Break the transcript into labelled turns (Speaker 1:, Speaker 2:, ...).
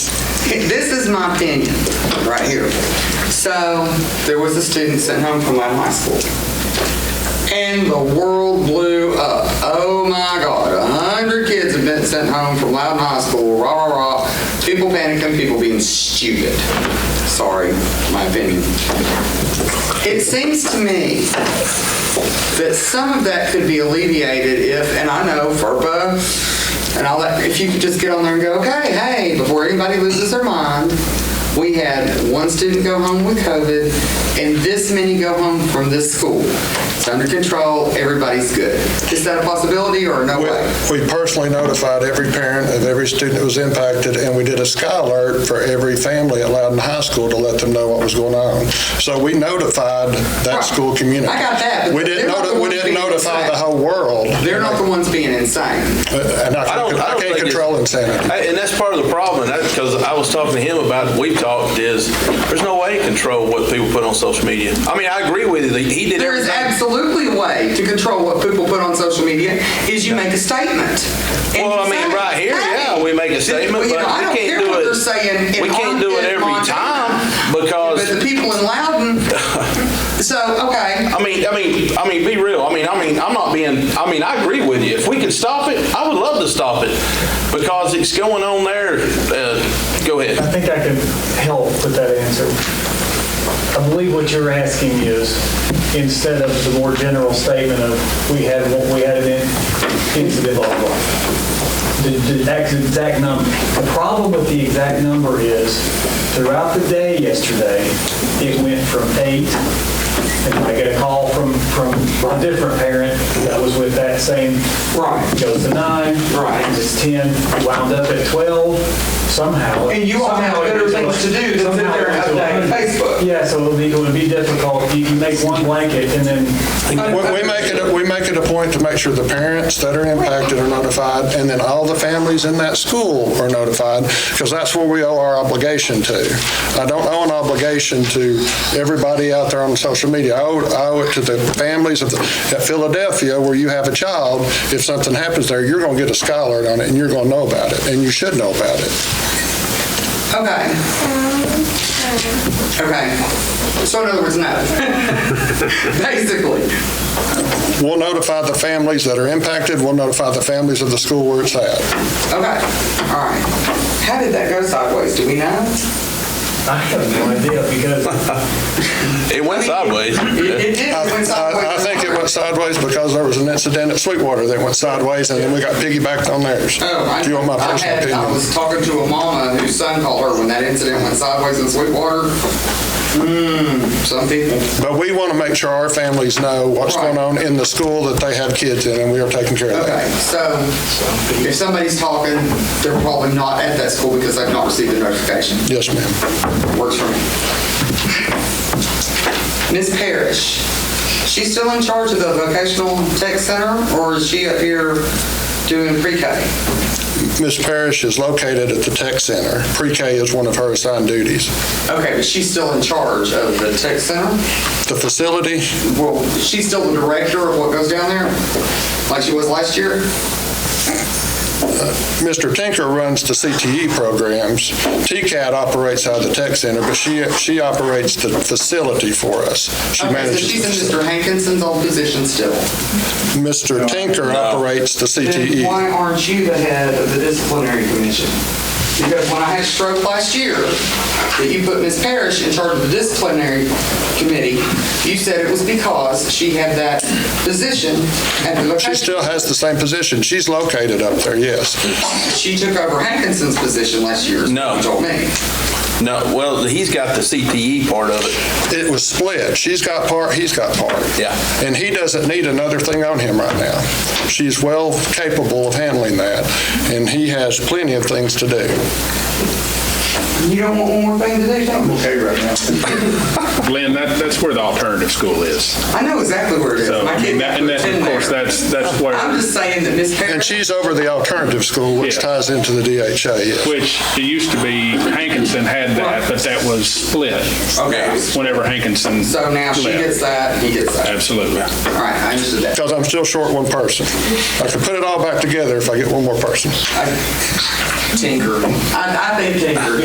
Speaker 1: this is my opinion, right here. So, there was a student sent home from my high school. And the world blew up. Oh my God, a hundred kids have been sent home from Loudon High School, rah, rah, rah. People panicking, people being stupid. Sorry, my opinion. It seems to me that some of that could be alleviated if, and I know FERPA and all that, if you could just get on there and go, okay, hey, before anybody loses their mind, we had one student go home with COVID and this many go home from this school. It's under control, everybody's good. Is that a possibility or no
Speaker 2: We
Speaker 1: way?
Speaker 2: we personally notified every parent of every student that was impacted, and we did a sky alert for every family at Loudon High School to let them know what was going on. So we notified that
Speaker 1: Right.
Speaker 2: school community.
Speaker 1: I got that, but
Speaker 2: We
Speaker 1: they're
Speaker 2: didn't,
Speaker 1: not the
Speaker 2: noti- we
Speaker 1: ones
Speaker 2: didn't
Speaker 1: being
Speaker 2: notify the
Speaker 1: impacted.
Speaker 2: whole world. Uh,
Speaker 1: They're not the ones being insane.
Speaker 2: And I
Speaker 3: I don't-
Speaker 2: can't-
Speaker 3: I
Speaker 2: I
Speaker 3: don't
Speaker 2: can't
Speaker 3: think it's-
Speaker 2: control insanity.
Speaker 3: I- And that's part of the problem, and that's because I was talking to him about, we talked, is there's no way to control what people put on social media. I mean, I agree with you, that he did
Speaker 1: There is
Speaker 3: everything.
Speaker 1: absolutely a way to control what people put on social media is you make a statement. And
Speaker 3: Well, I
Speaker 1: you
Speaker 3: mean,
Speaker 1: say,
Speaker 3: right here,
Speaker 1: "Hey."
Speaker 3: yeah, we make a statement,
Speaker 1: Well, you
Speaker 3: but
Speaker 1: know, I don't
Speaker 3: we
Speaker 1: care
Speaker 3: can't do
Speaker 1: what
Speaker 3: it.
Speaker 1: they're saying in
Speaker 3: We can't do it
Speaker 1: Ogden,
Speaker 3: every
Speaker 1: Montana.
Speaker 3: time
Speaker 1: But
Speaker 3: because
Speaker 1: the people in Loudon, so, okay.
Speaker 3: I mean, I mean, I mean, be real. I mean, I mean, I'm not being. I mean, I agree with you. If we could stop it, I would love to stop it because it's going on there. Uh, go ahead.
Speaker 4: I think I can help with that answer. I believe what you're asking is, instead of the more general statement of, we had, one- we had an in- incident, blah, blah, blah, the the ex- exact number. The problem with the exact number is, throughout the day yesterday, it went from eight, and I got a call from, from a different parent that was with that same
Speaker 1: Right.
Speaker 4: goes to nine.
Speaker 1: Right.
Speaker 4: It's 10, wound up at 12 somehow.
Speaker 1: And you all have
Speaker 4: Somehow it
Speaker 1: better
Speaker 4: was-
Speaker 1: things to do than sit
Speaker 4: somehow
Speaker 1: there and
Speaker 4: it was a
Speaker 1: update
Speaker 4: hundred.
Speaker 1: Facebook.
Speaker 4: Yeah, so it'll be, it would be difficult. You can make one blanket and then,
Speaker 2: We we make it, a- we make it a point to make sure the parents that are impacted are notified, and then all the families in that school are notified, because that's where we owe our obligation to. I don't owe an obligation to everybody out there on social media. I owe, I owe it to the families of, the- at Philadelphia, where you have a child, if something happens there, you're going to get a sky alert on it, and you're going to know about it, and you should know about it.
Speaker 1: Okay. Okay. So in other words, no. Basically.
Speaker 2: We'll notify the families that are impacted, we'll notify the families of the school where it's at.
Speaker 1: Okay. All right. How did that go sideways? Do we know?
Speaker 4: I have no idea because
Speaker 3: It went sideways.
Speaker 1: It it did.
Speaker 2: I
Speaker 1: It went sideways.
Speaker 2: I- I think it went sideways because there was an incident at Sweetwater that went sideways, and then we got piggybacked on theirs.
Speaker 1: Oh, I,
Speaker 2: Do you want my
Speaker 1: I
Speaker 2: personal
Speaker 1: had, I
Speaker 2: opinion?
Speaker 1: was talking to a mama whose son called her when that incident went sideways in Sweetwater. Mmm, some people.
Speaker 2: But we want to make sure our families know what's
Speaker 1: Right.
Speaker 2: going on in the school that they have kids in, and we are taking care of
Speaker 1: Okay,
Speaker 2: that.
Speaker 1: so if somebody's talking, they're probably not at that school because they've not received the notification.
Speaker 2: Yes, ma'am.
Speaker 1: Works for me. Ms. Parrish, she's still in charge of the vocational tech center or is she up here doing pre-K?
Speaker 2: Ms. Parrish is located at the tech center. Pre-K is one of her assigned duties.
Speaker 1: Okay, but she's still in charge of the tech center?
Speaker 2: The facility,
Speaker 1: Well, she's still the director of what goes down there, like she was last year?
Speaker 2: Mr. Tinker runs the CTE programs. TCAT operates out of the tech center, but she, she operates the facility for us. She
Speaker 1: Okay, so
Speaker 2: manages. the
Speaker 1: she's in
Speaker 2: facility.
Speaker 1: Mr. Hankinson's old position still.
Speaker 2: Mr. Tinker operates the E.
Speaker 1: Then
Speaker 2: CTE.
Speaker 1: why aren't you the head of the disciplinary commission? Because when I had stroke last year, that you put Ms. Parrish in charge of the disciplinary committee, you said it was because she had that position at the
Speaker 2: She
Speaker 1: location.
Speaker 2: still has the same position. She's located up there, yes.
Speaker 1: She took over Hankinson's position last year, is what
Speaker 3: No.
Speaker 1: you told me.
Speaker 3: No, well, he's got the CTE part of it.
Speaker 2: It was split. She's got part, he's got part.
Speaker 3: Yeah.
Speaker 2: And he doesn't need another thing on him right now. She's well capable of handling that, and he has plenty of things to do.
Speaker 1: You don't want one more thing to do, don't you?
Speaker 5: okay right now. Glenn, that, that's where the alternative school is.
Speaker 1: I know exactly where it is.
Speaker 5: So,
Speaker 1: My
Speaker 5: I
Speaker 1: kid
Speaker 5: mean,
Speaker 1: got
Speaker 5: that- and that's, of
Speaker 1: in
Speaker 5: course,
Speaker 1: there.
Speaker 5: that's, that's where.
Speaker 1: I'm just saying that Miss
Speaker 2: And
Speaker 1: Parrish,
Speaker 2: she's over the alternative school, which
Speaker 5: Yeah.
Speaker 2: ties into the DHA, yes.
Speaker 5: Which it used to be Hankinson had that, but that was split.
Speaker 1: Okay.
Speaker 5: Whenever Hankinson.
Speaker 1: so now she
Speaker 5: left.
Speaker 1: gets that, he gets that.
Speaker 5: Absolutely.
Speaker 1: All right, I understood that.
Speaker 2: Because I'm still short one person. I could put it all back together if I get one more person.
Speaker 1: I- Tinker. I, I think Tinker.